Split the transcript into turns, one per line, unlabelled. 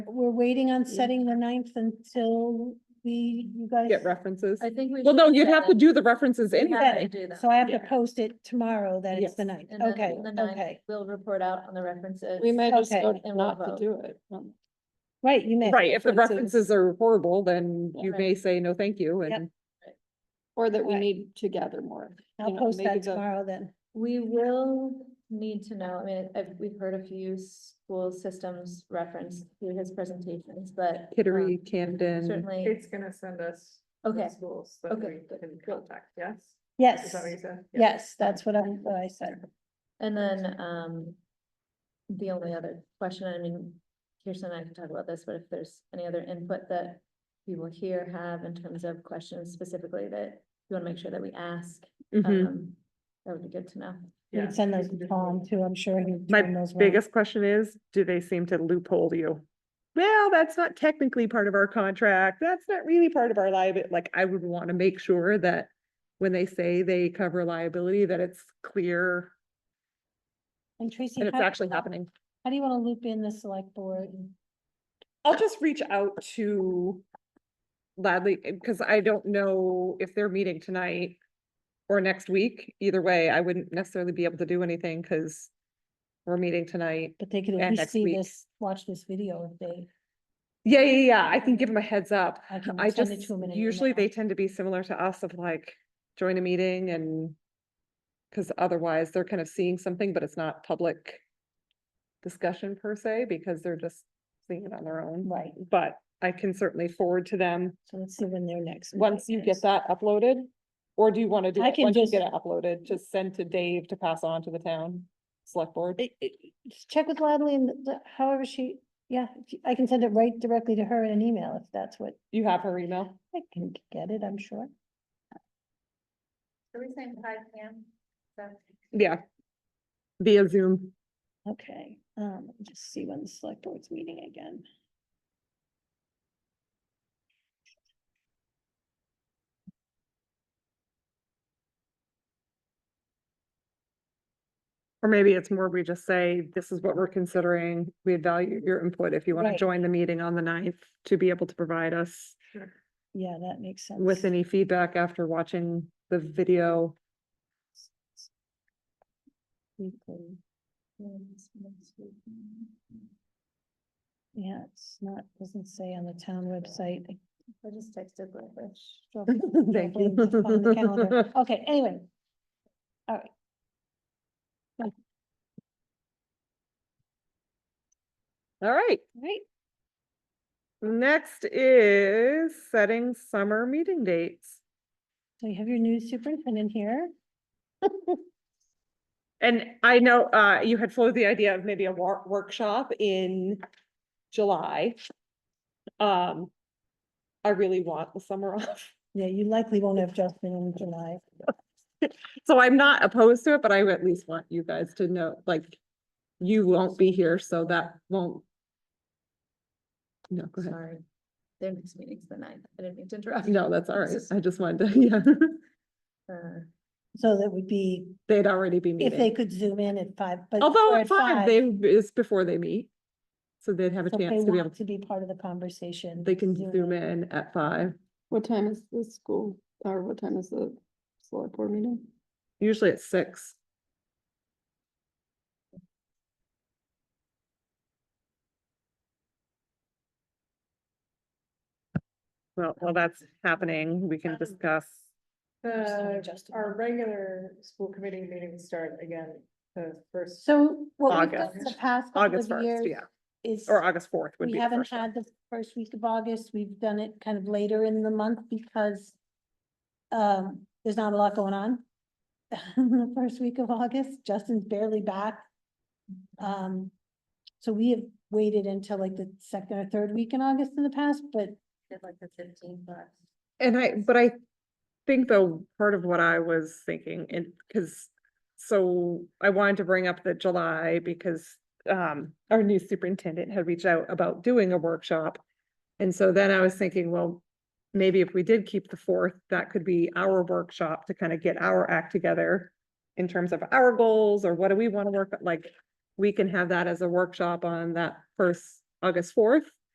we're waiting on setting the ninth until we, you guys.
get references.
I think we.
Well, no,
should
you'd
set
have to
that.
do the references
We
anyway.
have to
Right,
do that.
So I have to
Yeah.
post it tomorrow that it's the ninth.
And then
Okay,
the ninth,
okay.
We'll report out on the references.
We may just
Okay.
go
And we'll
not to
vote.
do it. um,
Right, you may.
Right, if the
references.
references are horrible, then you
Right.
may say, no, thank you,
Yep.
and
Or that we
Right.
need to gather more.
I'll
know,
post
maybe
that
the-
tomorrow then.
We will need to know, I mean, I've, we've heard a few school systems referenced through his presentations, but.
Kittery,
um,
Camden.
Certainly,
Kate's gonna send us. the
okay,
Schools that
okay,
we can contact, yes? Is
Yes,
that what you said? Yeah.
yes, that's what I, what I said.
and then, um. The only other question, I mean, Kirsten and I can talk about this, but if there's any other input that people here have in terms of questions specifically that you want to make sure that we ask,
Mhm.
um, that would be good to know.
You
Yeah.
can send those to Tom too, I'm sure he.
My
knows well.
Biggest question is, do they seem to loophole you? Well, that's not technically part of our contract. That's not really part of our liability. Like, I would want to make sure that when they say they cover liability, that it's clear
And Tracy.
and it's
how-
actually happening.
How do you want to loop in the select board?
I'll just reach out to Ladley, because I don't know if they're meeting tonight or next week. Either way, I wouldn't necessarily be able to do anything because we're meeting tonight.
But they could
Yeah,
at least
next
see
week.
this, watch this video if they.
Yeah, yeah, yeah. I can give them a heads up.
I can
I
send it
just,
to 'em in an
usually
email.
they tend to be similar to us of like, join a meeting and because otherwise they're kind of seeing something, but it's not public discussion per se, because they're just seeing it on their own.
Right,
But I can certainly forward to them
so let's see when their next. meeting
once you
is.
get that uploaded. Or do you want to do
I
it
can
once you
just-
get it uploaded, just send to Dave to pass on to the town select board?
It- it- just Check with Ladley and the- however she, yeah, if you- I can send it right directly to her in an email if that's what,
You have her email?
I can get it, I'm sure.
Are we saying five P M?
Yeah. Via Zoom.
Okay, um, let me just see when the select board's meeting again.
Or maybe it's more, we just say, this is what we're considering. We value your input if you want to
Right.
join the meeting on the ninth to be able to provide us
Yeah, that makes sense.
with any feedback after watching the video.
Weekly. Yeah, it's not, doesn't say on the town website. I
I just texted Glenbush.
struggle-
Thank
struggling to find the calendar.
you.
Okay, anyway. All right.
All right.
Right,
Next is setting summer meeting dates.
so you have your new superintendent here.
And I know, uh, you had floated the idea of maybe a wor- workshop in July. Um, I really want the summer off.
Yeah, you likely won't have Justin in July.
So I'm not opposed to it, but I at least want you guys to know, like, you won't be here, so that won't. No, go ahead.
Sorry. Their next meeting's the ninth. I didn't mean to interrupt.
No, that's all right. I just wanted to, yeah,
Uh,
So that would be,
they'd already be
if they
meeting.
could zoom in at five, but.
Although
or
at five, they, it's before they meet. So they'd have a
so if they
chance to be able,
want to be part of the conversation.
they can zoom in at five.
What time is the school, or what time is the select board meeting?
Usually it's six. Well, while that's happening, we can
Um,
discuss.
sorry,
The,
Justin.
our regular school committee meetings start again, the first.
So what we've done
August.
the past couple
August
of
first,
years
yeah,
is,
or August fourth would
we
be the
haven't
first. one.
had the first week of August. We've done it kind of later in the month because um, there's not a lot going on the first week of August. Justin's barely back. Um, so we have waited until like the second or third week in August in the past, but
did like the fifteenth, but.
And I, but I think though, part of what I was thinking, and, cause, so I wanted to bring up the July because, um, our new superintendent had reached out about doing a workshop. And so then I was thinking, well, maybe if we did keep the fourth, that could be our workshop to kind of get our act together in terms of our goals or what do we want to work, like, we can have that as a workshop on that first August fourth.